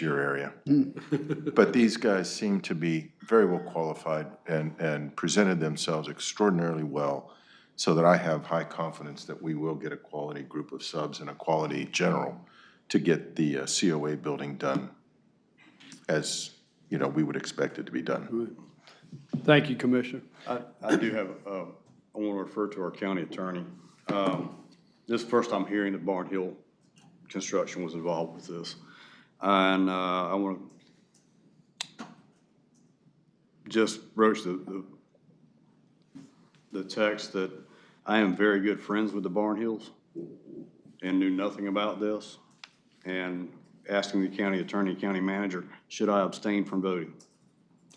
your area. But these guys seem to be very well qualified and, and presented themselves extraordinarily well, so that I have high confidence that we will get a quality group of subs and a quality general to get the uh, COA building done as, you know, we would expect it to be done. Thank you, Commissioner. I, I do have, uh, I want to refer to our county attorney. Um, This is the first I'm hearing that Barn Hill Construction was involved with this. And, uh, I want to just broach the, the, the text that I am very good friends with the Barn Hills and knew nothing about this. And asking the county attorney, county manager, should I abstain from voting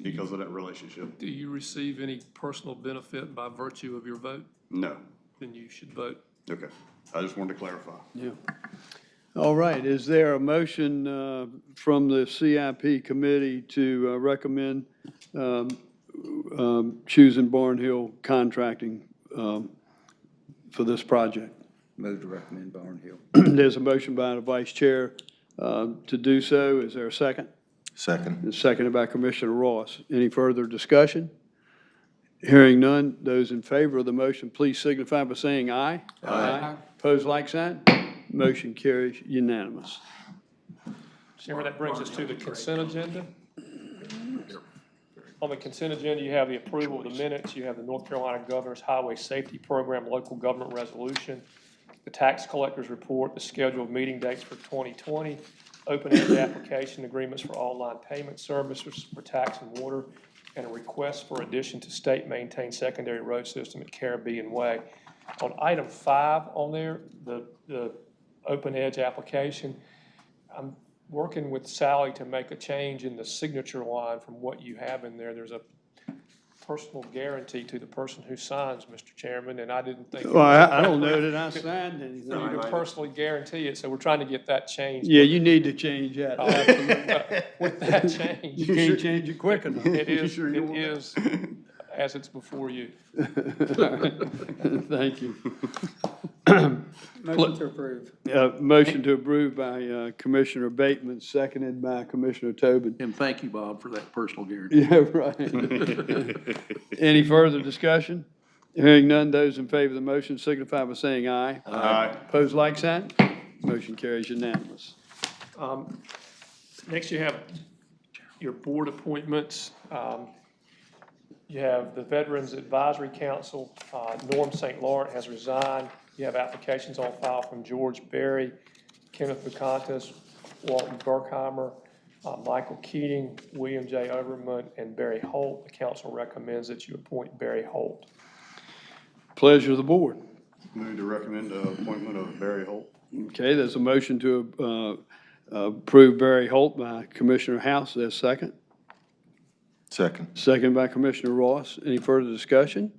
because of that relationship? Do you receive any personal benefit by virtue of your vote? No. Then you should vote. Okay, I just wanted to clarify. Yeah. All right, is there a motion uh, from the CIP committee to uh, recommend um, um, choosing Barnhill Contracting um, for this project? Move to recommend Barnhill. There's a motion by the vice chair uh, to do so. Is there a second? Second. And seconded by Commissioner Ross. Any further discussion? Hearing none, those in favor of the motion, please signify by saying aye. Aye. Pose like sign. Motion carries unanimous. Chairman, that brings us to the consent agenda. On the consent agenda, you have the approval of the minutes, you have the North Carolina Governor's Highway Safety Program Local Government Resolution, the tax collector's report, the scheduled meeting dates for 2020, open-ended application agreements for online payment services for tax and water, and a request for addition to state-maintained secondary road system at Caribbean Way. On item five on there, the, the open edge application, I'm working with Sally to make a change in the signature line from what you have in there. There's a personal guarantee to the person who signs, Mr. Chairman, and I didn't think. Well, I I don't know that I signed You anything. can personally guarantee it, so we're trying to get that changed. Yeah, you need to change that. With that You change, can't change it quick enough. it is, it is as it's before you. Thank you. Motion to approve. Uh, Motion to approve by uh, Commissioner Bateman, seconded by Commissioner Tobin. And thank you, Bob, for that personal guarantee. Yeah, right. Any further discussion? Hearing none, those in favor of the motion signify by saying aye. Aye. Pose like sign. Motion carries unanimous. Um, Next, you have your board appointments. Um, You have the Veterans Advisory Council, uh, Norm St. Laurent has resigned. You have applications on file from George Berry, Kenneth Bacantis, Walton Burkheimer, uh, Michael Keating, William J. Overman, and Barry Holt. The council recommends that you appoint Barry Holt. Pleasure of the board. Move to recommend the appointment of Barry Holt. Okay, there's a motion to uh, approve Barry Holt by Commissioner House. There's second. Second. Second by Commissioner Ross. Any further discussion?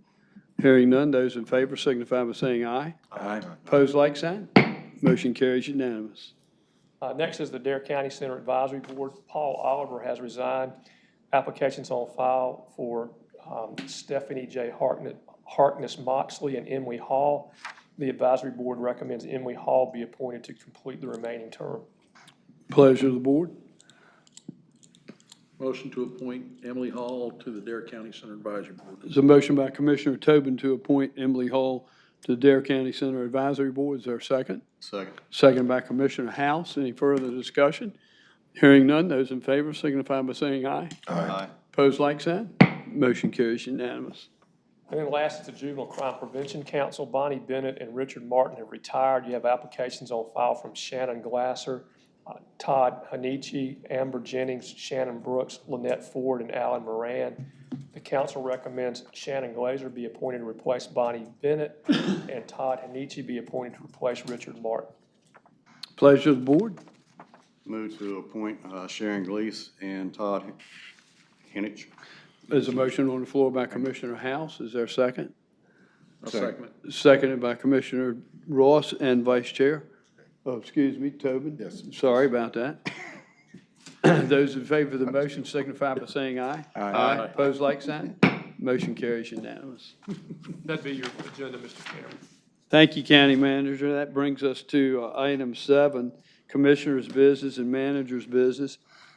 Hearing none, those in favor signify by saying aye. Aye. Pose like sign. Motion carries unanimous. Uh, Next is the Dare County Center Advisory Board. Paul Oliver has resigned. Applications on file for um, Stephanie J. Hartnett, Harkness Moxley and Emily Hall. The advisory board recommends Emily Hall be appointed to complete the remaining term. Pleasure of the board. Motion to appoint Emily Hall to the Dare County Center Advisory Board. There's a motion by Commissioner Tobin to appoint Emily Hall to Dare County Center Advisory Board. Is there a second? Second. Second by Commissioner House. Any further discussion? Hearing none, those in favor signify by saying aye. Aye. Pose like sign. Motion carries unanimous. And then last is the Juvenile Crime Prevention Council. Bonnie Bennett and Richard Martin have retired. You have applications on file from Shannon Glasser, uh, Todd Hanichi, Amber Jennings, Shannon Brooks, Lynette Ford, and Alan Moran. The council recommends Shannon Glazer be appointed to replace Bonnie Bennett and Todd Hanichi be appointed to replace Richard Martin. Pleasure of the board. Move to appoint uh, Sharon Gleason and Todd Henich. There's a motion on the floor by Commissioner House. Is there a second? I'll second it. Seconded by Commissioner Ross and Vice Chair. Oh, excuse me, Tobin. Yes. Sorry about that. Those in favor of the motion signify by saying aye. Aye. Pose like sign. Motion carries unanimous. That'd be your agenda, Mr. Chairman. Thank you, County Manager. That brings us to uh, item seven, commissioner's business and manager's business.